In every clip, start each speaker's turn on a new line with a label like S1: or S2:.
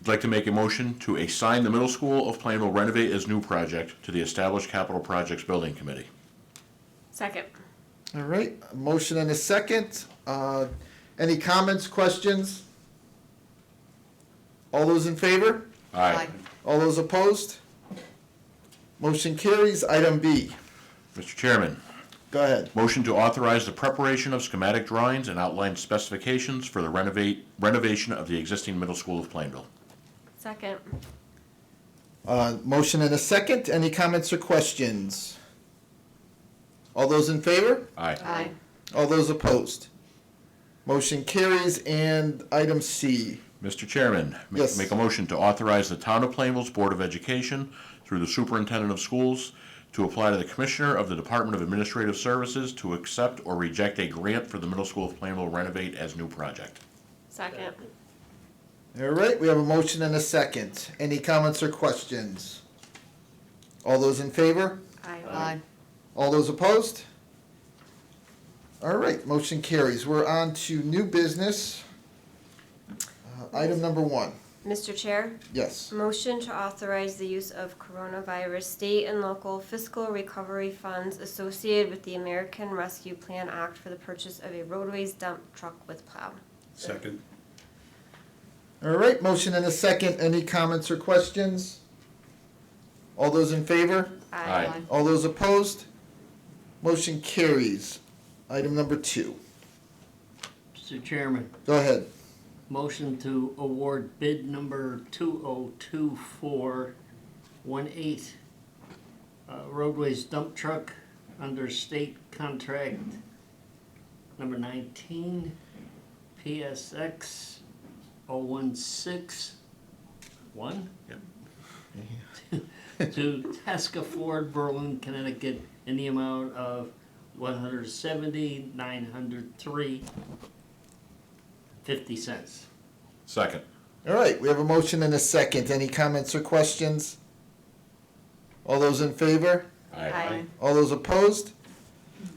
S1: I'd like to make a motion to assign the middle school of Plainville renovate as new project to the established capital projects building committee.
S2: Second.
S3: All right, a motion and a second. Uh, Any comments, questions? All those in favor?
S1: Aye.
S3: All those opposed? Motion carries. Item B,
S1: Mr. Chairman,
S3: go ahead.
S1: motion to authorize the preparation of schematic drawings and outline specifications for the renovate, renovation of the existing middle school of Plainville.
S2: Second.
S3: Uh, Motion and a second. Any comments or questions? All those in favor?
S1: Aye.
S3: All those opposed? Motion carries. And item C,
S1: Mr. Chairman, ma-
S3: Yes.
S1: make a motion to authorize the Town of Plainville's Board of Education, through the Superintendent of Schools, to apply to the Commissioner of the Department of Administrative Services to accept or reject a grant for the Middle School of Plainville renovate as new project.
S2: Second.
S3: All right, we have a motion and a second. Any comments or questions? All those in favor?
S2: Aye.
S3: All those opposed? All right, motion carries. We're on to new business. Uh, Item number one,
S2: Mr. Chair,
S3: yes.
S2: motion to authorize the use of coronavirus state and local fiscal recovery funds associated with the American Rescue Plan Act for the purchase of a roadways dump truck with plow.
S4: Second.
S3: All right, motion and a second. Any comments or questions? All those in favor?
S1: Aye.
S3: All those opposed? Motion carries. Item number two,
S5: Mr. Chairman,
S3: go ahead.
S5: motion to award bid number 202418, uh, roadways dump truck under state contract number 19, PSX 0161, to Tasca Ford, Berlin, Connecticut, in the amount of 170,903 50 cents.
S1: Second.
S3: All right, we have a motion and a second. Any comments or questions? All those in favor?
S2: Aye.
S3: All those opposed?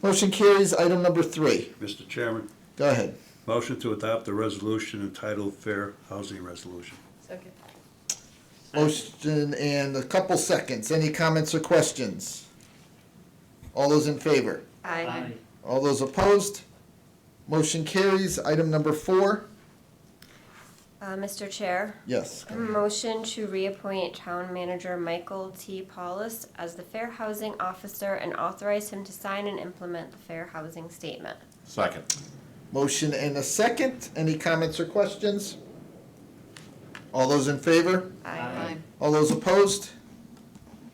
S3: Motion carries. Item number three.
S4: Mr. Chairman,
S3: Go ahead.
S4: motion to adopt the resolution entitled Fair Housing Resolution.
S2: Second.
S3: Motion and a couple seconds. Any comments or questions? All those in favor?
S2: Aye.
S5: Aye.
S3: All those opposed? Motion carries. Item number four.
S2: Uh, Mr. Chair,
S3: Yes.
S2: motion to reappoint Town Manager Michael T. Paulus as the Fair Housing Officer and authorize him to sign and implement the Fair Housing Statement.
S1: Second.
S3: Motion and a second. Any comments or questions? All those in favor?
S5: Aye.
S3: All those opposed?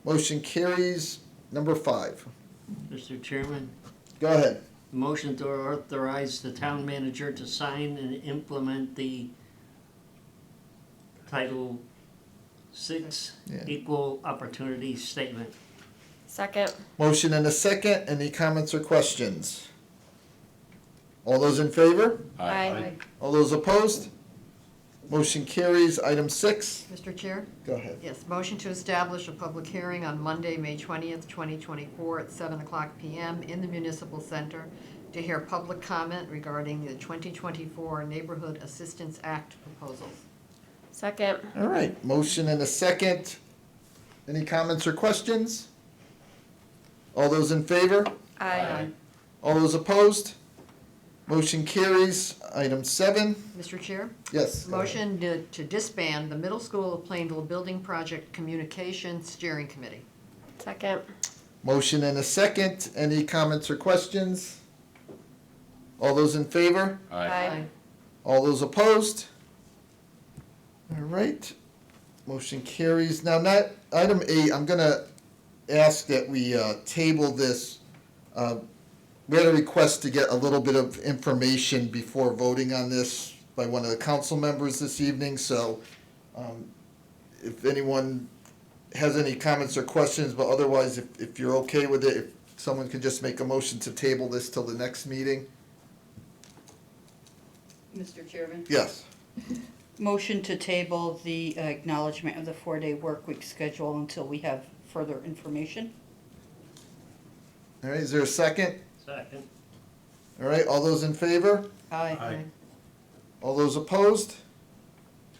S3: Motion carries. Number five.
S5: Mr. Chairman,
S3: Go ahead.
S5: motion to authorize the town manager to sign and implement the Title Six
S3: Yeah.
S5: Equal Opportunity Statement.
S2: Second.
S3: Motion and a second. Any comments or questions? All those in favor?
S2: Aye.
S3: All those opposed? Motion carries. Item six.
S6: Mr. Chair?
S3: Go ahead.
S6: Yes, motion to establish a public hearing on Monday, May 20th, 2024, at 7 o'clock PM in the Municipal Center to hear public comment regarding the 2024 Neighborhood Assistance Act proposals.
S2: Second.
S3: All right, motion and a second. Any comments or questions? All those in favor?
S2: Aye.
S3: All those opposed? Motion carries. Item seven.
S6: Mr. Chair?
S3: Yes. go ahead.
S6: Motion to to disband the Middle School of Plainville Building Project Communication Steering Committee.
S2: Second.
S3: Motion and a second. Any comments or questions? All those in favor?
S2: Aye.
S3: All those opposed? All right, motion carries. Now, not, item eight, I'm gonna ask that we uh, table this. Uh, We had a request to get a little bit of information before voting on this by one of the council members this evening, so um, if anyone has any comments or questions, but otherwise, if, if you're okay with it, if someone could just make a motion to table this till the next meeting,
S7: Mr. Chairman,
S3: yes.
S7: motion to table the acknowledgement of the four-day work week schedule until we have further information.
S3: All right, is there a second?
S5: Second.
S3: All right, all those in favor?
S7: Aye.
S4: Aye.
S3: All those opposed?